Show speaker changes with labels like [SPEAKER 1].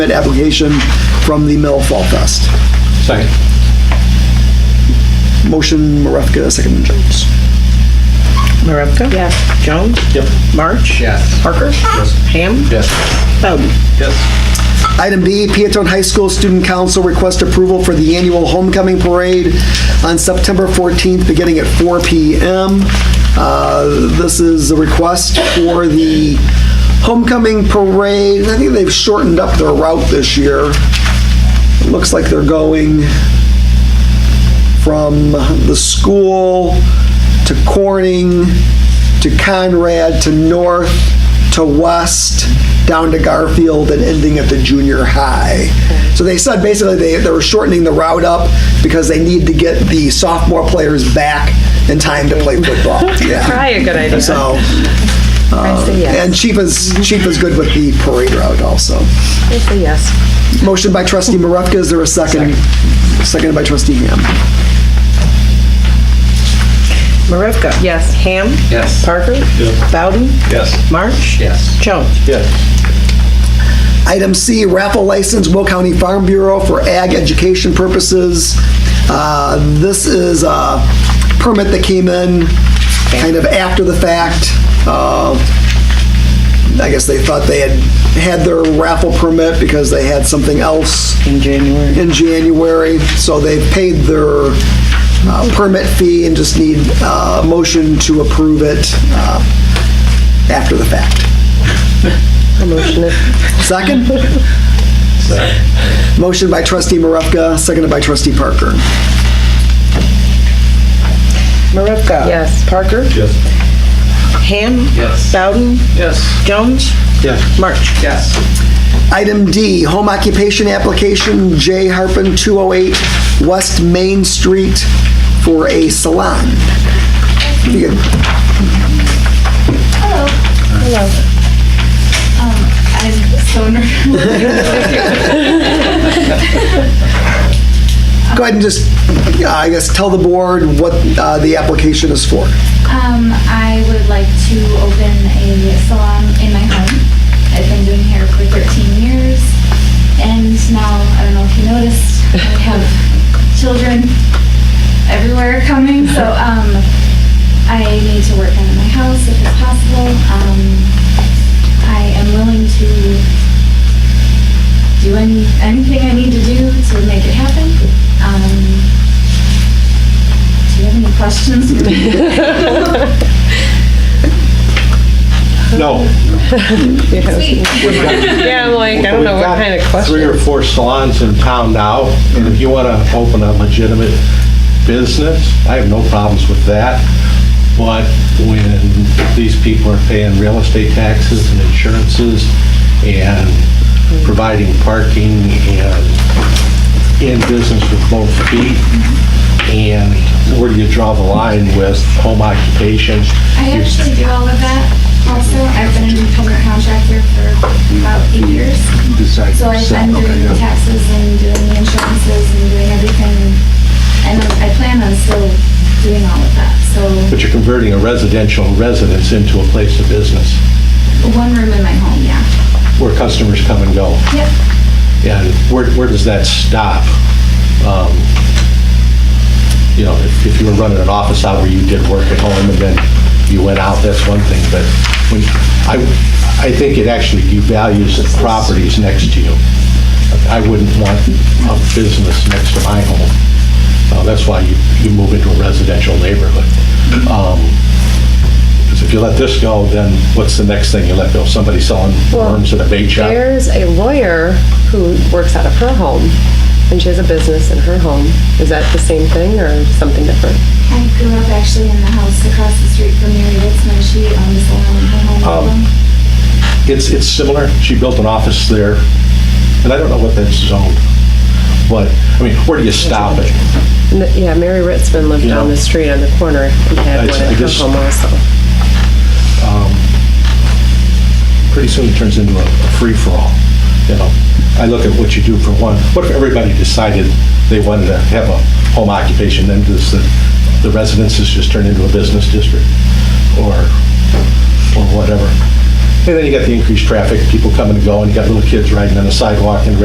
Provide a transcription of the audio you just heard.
[SPEAKER 1] permit application from the Mill Fall Fest.
[SPEAKER 2] Second.
[SPEAKER 1] Motion Marevka, second Jones.
[SPEAKER 3] Marevka?
[SPEAKER 4] Yes.
[SPEAKER 3] Jones?
[SPEAKER 2] Yep.
[SPEAKER 3] March?
[SPEAKER 2] Yes.
[SPEAKER 3] Parker?
[SPEAKER 2] Yes.
[SPEAKER 3] Ham?
[SPEAKER 2] Yes.
[SPEAKER 3] Bowden?
[SPEAKER 2] Yes.
[SPEAKER 1] Item B, Peatone High School Student Council request approval for the annual homecoming parade on September 14th, beginning at 4 PM. Uh, This is a request for the homecoming parade. I think they've shortened up their route this year. It Looks like they're going from the school to Corning to Conrad to North to West down to Garfield and ending at the junior high. So they said basically they, they were shortening the route up because they need to get the sophomore players back in time to play football. Yeah.
[SPEAKER 4] Probably a good idea.
[SPEAKER 1] So,
[SPEAKER 4] I say
[SPEAKER 1] and
[SPEAKER 4] yes.
[SPEAKER 1] Chief is, Chief is good with the parade route also.
[SPEAKER 4] I say yes.
[SPEAKER 1] Motion by trustee Marevka, is there a second? Seconded by trustee Ham.
[SPEAKER 3] Marevka?
[SPEAKER 4] Yes.
[SPEAKER 3] Ham?
[SPEAKER 2] Yes.
[SPEAKER 3] Parker?
[SPEAKER 2] Yes.
[SPEAKER 3] Bowden?
[SPEAKER 2] Yes.
[SPEAKER 3] March?
[SPEAKER 2] Yes.
[SPEAKER 3] Jones?
[SPEAKER 2] Yes.
[SPEAKER 1] Item C, raffle license, Will County Farm Bureau for ag education purposes. Uh, This is a permit that came in kind of after the fact. Uh, I guess they thought they had had their raffle permit because they had something else
[SPEAKER 3] In January.
[SPEAKER 1] in January, so they've paid their uh, permit fee and just need uh, a motion to approve it uh, after the fact.
[SPEAKER 3] I motion it.
[SPEAKER 1] Second? Motion by trustee Marevka, seconded by trustee Parker.
[SPEAKER 3] Marevka?
[SPEAKER 4] Yes.
[SPEAKER 3] Parker?
[SPEAKER 2] Yes.
[SPEAKER 3] Ham?
[SPEAKER 2] Yes.
[SPEAKER 3] Bowden?
[SPEAKER 2] Yes.
[SPEAKER 3] Jones?
[SPEAKER 2] Yes.
[SPEAKER 3] March?
[SPEAKER 2] Yes.
[SPEAKER 1] Item D, home occupation application, J. Harpen, 208 West Main Street for a salon. You could-
[SPEAKER 5] Hello. Hello. Um, I'm so nervous.
[SPEAKER 1] Go ahead and just, uh, I guess, tell the board what uh, the application is for.
[SPEAKER 5] Um, I would like to open a salon in my home. I've been doing hair for 13 years, and now I don't know if you noticed, I have children everywhere coming. So um, I need to work out of my house if it's possible. Um, I am willing to do any anything I need to do to make it happen. Um, do you have any questions?
[SPEAKER 2] No.
[SPEAKER 5] Sweet.
[SPEAKER 4] Yeah, I'm like, I don't know
[SPEAKER 2] We've
[SPEAKER 4] what
[SPEAKER 2] got
[SPEAKER 4] kind of
[SPEAKER 2] Three or
[SPEAKER 4] question.
[SPEAKER 2] four salons in town now, and if you want to open a legitimate business, I have no problems with that. But when these people are paying real estate taxes and insurances and providing parking and in business with both feet, and where do you draw the line with home occupation?
[SPEAKER 5] I actually do all of that also. I've been an independent contractor for about eight years.
[SPEAKER 2] Decide.
[SPEAKER 5] So I've been doing the taxes and doing the insurances and doing everything. And I plan on still doing all of that. So
[SPEAKER 2] But you're converting a residential residence into a place of business.
[SPEAKER 5] one room in my home, yeah.
[SPEAKER 2] where customers come and go.
[SPEAKER 5] Yep.
[SPEAKER 2] And where, where does that stop? Um, You know, if, if you were running an office out where you did work at home and then you went out, that's one thing, but when, I, I think it actually devalues the properties next to you. I wouldn't want a business next to my home. Uh, That's why you, you move into a residential neighborhood. Because if you let this go, then what's the next thing you let go? Somebody selling worms at a bait shop?
[SPEAKER 4] There's a lawyer who works out of her home, and she has a business in her home. Is that the same thing or something different?
[SPEAKER 5] I grew up actually in the house across the street from Mary Witzman. She owns the home, her home.
[SPEAKER 2] Um,
[SPEAKER 5] alone.
[SPEAKER 2] It's, it's similar. She built an office there, and I don't know what that's zoned. But, I mean, where do you stop it?
[SPEAKER 4] N- Yeah, Mary Ritzman lived
[SPEAKER 2] Yeah.
[SPEAKER 4] down the street on the corner and
[SPEAKER 2] I-
[SPEAKER 4] had one
[SPEAKER 2] I
[SPEAKER 4] at her
[SPEAKER 2] just-
[SPEAKER 4] home also.
[SPEAKER 2] Pretty soon it turns into a a free-for-all, you know? I look at what you do for one. What if everybody decided they wanted to have a home occupation, then does the the residences just turn into a business district? Or, or whatever. And then you got the increased traffic, people coming and going, you got little kids riding on the sidewalk and